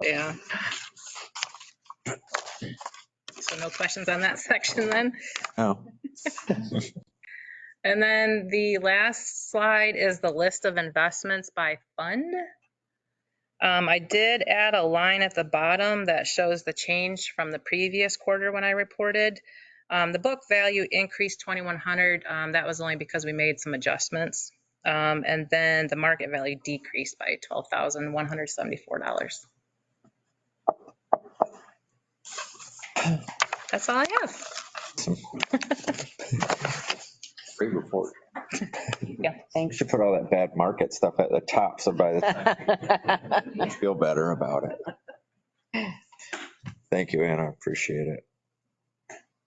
Yeah. So no questions on that section then? Oh, And then the last slide is the list of investments by fund. Um, I did add a line at the bottom that shows the change from the previous quarter when I reported. Um, the book value increased 2,100. Um, that was only because we made some adjustments. Um, and then the market value decreased by $12,174. That's all I have. Great report. you should put all that bad market stuff at the top, so by the time you feel better about it. Thank you, Anna, appreciate it.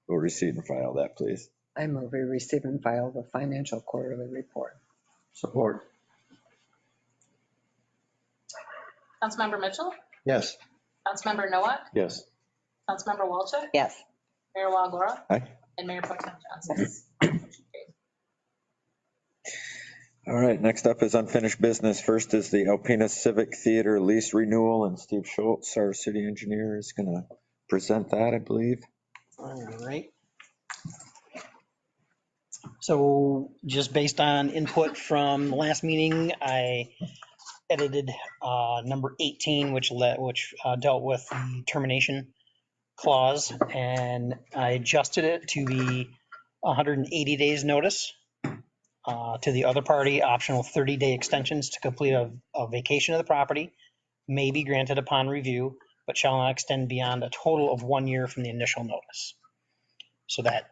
We'll receive and file that, please. I move we receive and file the financial quarterly report. Support. Councilmember Mitchell, Yes. Councilmember Nowak, Yes. Councilmember Walchuk, Yes. Mayor Walagora. Aye. And Mayor Pro Tem Johnson. All right, next up is unfinished business. First is the Alpena Civic Theater lease renewal, and Steve Schultz, our city engineer, is going to present that, I believe. All right. So just based on input from the last meeting, I edited uh, number 18, which let, which uh, dealt with the termination clause, and I adjusted it to be 180 days notice uh, to the other party, optional 30-day extensions to complete a a vacation of the property, may be granted upon review, but shall not extend beyond a total of one year from the initial notice. So that,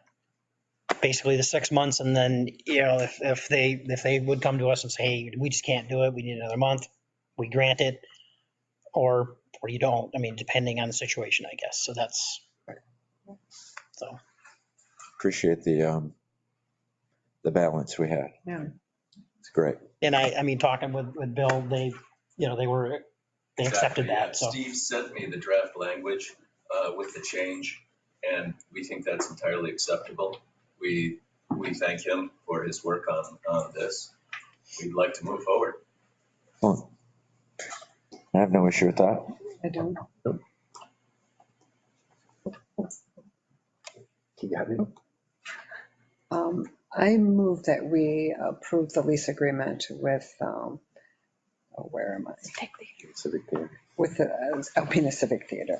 basically the six months, and then, you know, if, if they, if they would come to us and say, hey, we just can't do it, we need another month, we grant it, or, or you don't, I mean, depending on the situation, I guess, so that's, so, Appreciate the, um, the balance we had. Yeah. It's great. and I, I mean, talking with, with Bill, they, you know, they were, they accepted Exactly, yeah. that, so. Steve sent me the draft language uh, with the change, and we think that's entirely acceptable. We, we thank him for his work on, on this. We'd like to move forward. I have no issue with that. I don't, You got it. um, I move that we approve the lease agreement with, um, oh, where am I? Civic Theater. With the uh, Alpena Civic Theater.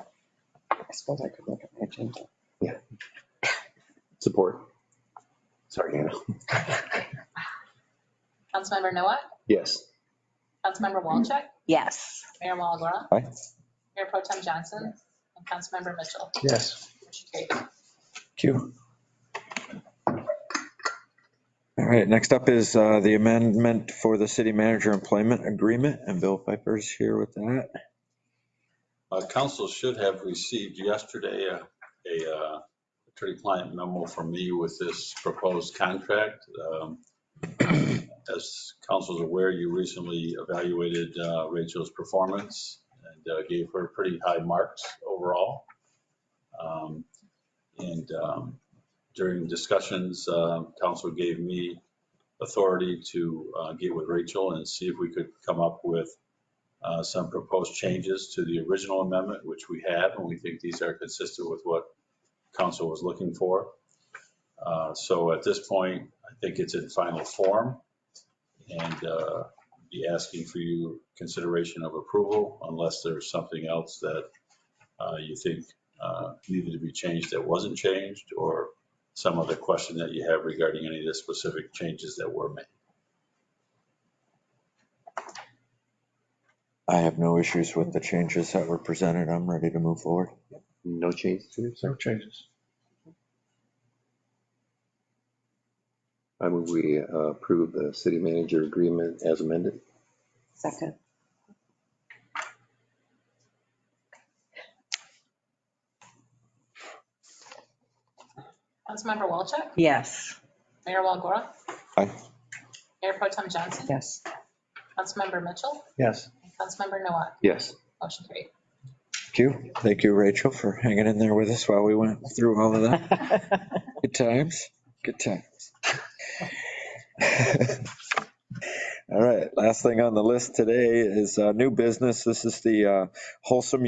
I suppose I could look at my agenda. Support. Sorry, Anna. Councilmember Nowak, Yes. Councilmember Walchuk, Yes. Mayor Walagora. Aye. Mayor Pro Tem Johnson, and Councilmember Mitchell. Yes. Motion carried. Q. All right, next up is uh, the amendment for the city manager employment agreement, and Bill Piper's here with that. Uh, Council should have received yesterday a- a uh, attorney-client memo from me with this proposed contract. Um, As council's aware, you recently evaluated uh, Rachel's performance and uh, gave her pretty high marks overall. Um, And um, during discussions, uh, council gave me authority to uh, get with Rachel and see if we could come up with uh, some proposed changes to the original amendment, which we have, and we think these are consistent with what council was looking for. Uh, So at this point, I think it's in final form and uh, be asking for you consideration of approval unless there's something else that uh, you think uh, needed to be changed that wasn't changed or some other question that you have regarding any of the specific changes that were made. I have no issues with the changes that were presented. I'm ready to move forward. No changes. No changes. I move we uh, approve the city manager agreement as amended. Second. Councilmember Walchuk, Yes. Mayor Walagora. Aye. Mayor Pro Tem Johnson, Yes. Councilmember Mitchell, Yes. and Councilmember Nowak. Yes. Motion carried. Thank you. Thank you, Rachel, for hanging in there with us while we went through all of that. Good times, good times. All right, last thing on the list today is uh, new business. This is the uh, Wholesome